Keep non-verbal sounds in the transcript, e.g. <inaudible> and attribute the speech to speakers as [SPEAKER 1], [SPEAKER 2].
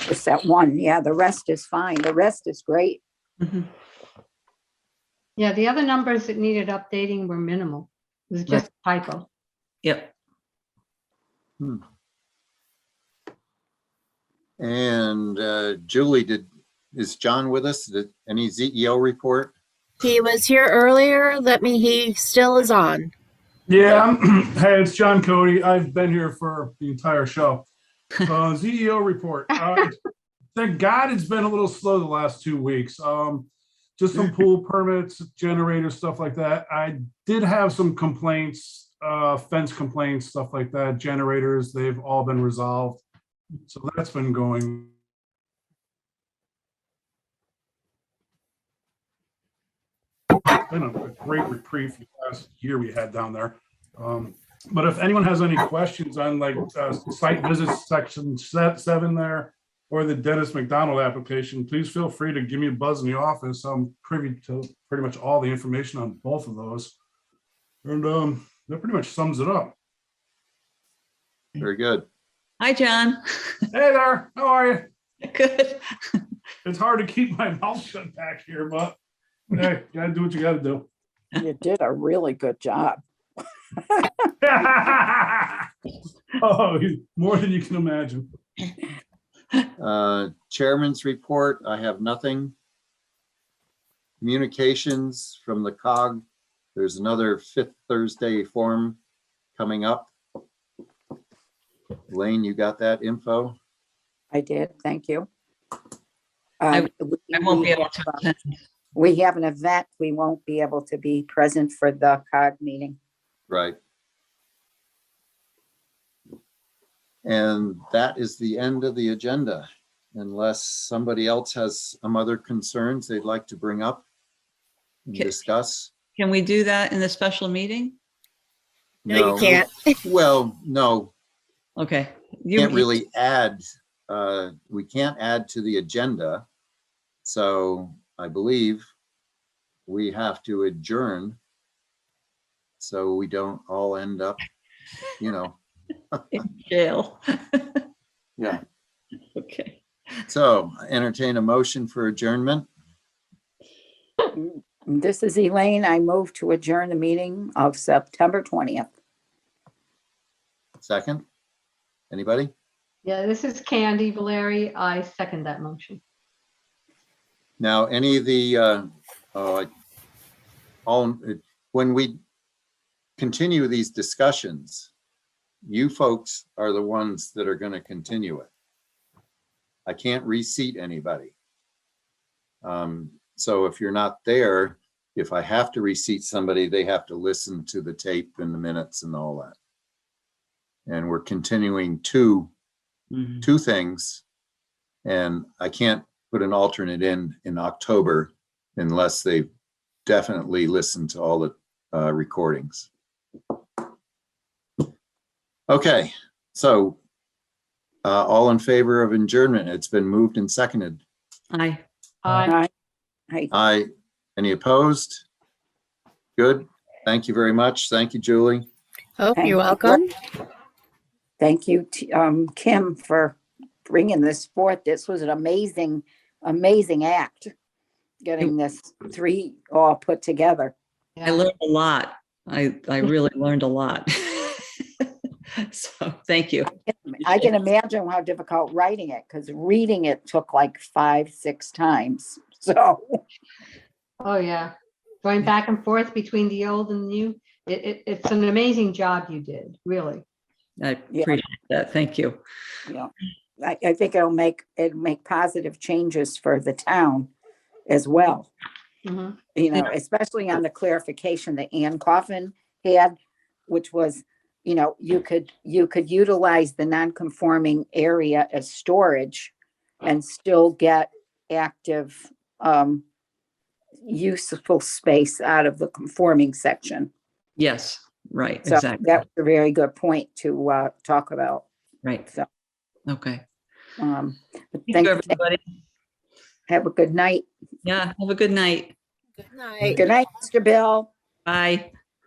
[SPEAKER 1] Just that one, yeah, the rest is fine, the rest is great.
[SPEAKER 2] Mhm.
[SPEAKER 3] Yeah, the other numbers that needed updating were minimal. It was just a typo.
[SPEAKER 2] Yep.
[SPEAKER 4] And uh, Julie, did, is John with us? Did- Any ZEO report?
[SPEAKER 5] He was here earlier. Let me, he still is on.
[SPEAKER 6] Yeah, I'm- <clears throat> hey, it's John Cody. I've been here for the entire show. Uh, CEO report. Uh, thank God it's been a little slow the last two weeks. Um, just some pool permits, generator stuff like that. I did have some complaints, uh, fence complaints, stuff like that. Generators, they've all been resolved. So that's been going. Been a great reprieve the last year we had down there. Um, But if anyone has any questions on like uh, site visits section se- seven there or the Dennis McDonald application, please feel free to give me a buzz in the office. I'm privy to pretty much all the information on both of those. And um, that pretty much sums it up.
[SPEAKER 4] Very good.
[SPEAKER 2] Hi, John. <laughs>
[SPEAKER 6] Hey there, how are you?
[SPEAKER 2] Good.
[SPEAKER 6] It's hard to keep my <laughs> mouth shut back here, but hey, gotta do what you gotta do. <laughs>
[SPEAKER 1] You did a really good job.
[SPEAKER 6] Oh, you- more than you can imagine.
[SPEAKER 4] Uh, Chairman's report, I have nothing. Communications from the COG, there's another fifth Thursday forum coming up. Lane, you got that info?
[SPEAKER 1] I did, thank you.
[SPEAKER 2] I-
[SPEAKER 1] Um, we-
[SPEAKER 2] I won't
[SPEAKER 1] we
[SPEAKER 2] be able
[SPEAKER 1] have,
[SPEAKER 2] to
[SPEAKER 1] uh,
[SPEAKER 2] attend.
[SPEAKER 1] We have an event, we won't be able to be present for the COG meeting.
[SPEAKER 4] Right. And that is the end of the agenda, unless somebody else has some other concerns they'd like to bring up and
[SPEAKER 2] Okay.
[SPEAKER 4] discuss.
[SPEAKER 2] Can we do that in the special meeting?
[SPEAKER 5] No, you can't.
[SPEAKER 4] Well, no,
[SPEAKER 2] Okay. You
[SPEAKER 4] can't really add, uh, we can't add to the agenda. So I believe we have to adjourn. So we don't all end up, you know,
[SPEAKER 2] in Jail.
[SPEAKER 4] <laughs> Yeah.
[SPEAKER 2] <laughs> Okay.
[SPEAKER 4] so entertain a motion for adjournment.
[SPEAKER 1] This is Elaine, I move to adjourn the meeting of September 20th.
[SPEAKER 4] Second? Anybody?
[SPEAKER 3] Yeah, this is Candy Valeri. I second that motion.
[SPEAKER 4] Now, any of the, uh, uh, all, when we continue these discussions, you folks are the ones that are gonna continue it. I can't reseat anybody. Um, so if you're not there, if I have to reseat somebody, they have to listen to the tape and the minutes and all that. And we're continuing two
[SPEAKER 2] Mhm.
[SPEAKER 4] two things. And I can't put an alternate in in October unless they definitely listen to all the uh, recordings. Okay, so uh, all in favor of adjournment, it's been moved and seconded.
[SPEAKER 2] Aye.
[SPEAKER 3] Aye.
[SPEAKER 1] Hey,
[SPEAKER 4] Aye. Any opposed? Good. Thank you very much. Thank you, Julie.
[SPEAKER 5] Oh,
[SPEAKER 1] Thank you.
[SPEAKER 5] you're welcome.
[SPEAKER 1] thank you, T- um, Kim, for bringing this forth. This was an amazing, amazing act, getting this three all put together.
[SPEAKER 2] I learned a lot. I, I really learned a lot. <laughs> So, thank you.
[SPEAKER 1] I can imagine how difficult writing it, because reading it took like five, six times. <laughs> So,
[SPEAKER 3] Oh, yeah. Going back and forth between the old and new. It, it, it's an amazing job you did, really.
[SPEAKER 2] I
[SPEAKER 1] Yeah.
[SPEAKER 2] appreciate that. Thank you.
[SPEAKER 1] you know, I, I think it'll make, it'll make positive changes for the town as well.
[SPEAKER 3] Mhm.
[SPEAKER 1] you know, especially on the clarification that Ann Coffin had, which was, you know, you could, you could utilize the non-conforming area as storage and still get active, um, useful space out of the conforming section.
[SPEAKER 2] Yes, right,
[SPEAKER 1] So
[SPEAKER 2] exactly.
[SPEAKER 1] that was a very good point to, uh, talk about.
[SPEAKER 2] Right.
[SPEAKER 1] so-
[SPEAKER 2] Okay.
[SPEAKER 1] Um, but
[SPEAKER 2] Thank
[SPEAKER 1] thank,
[SPEAKER 2] you, everybody.
[SPEAKER 1] have a good night.
[SPEAKER 2] Yeah, have a good night.
[SPEAKER 5] Good night.
[SPEAKER 1] Good night, Mr. Bill.
[SPEAKER 2] Bye.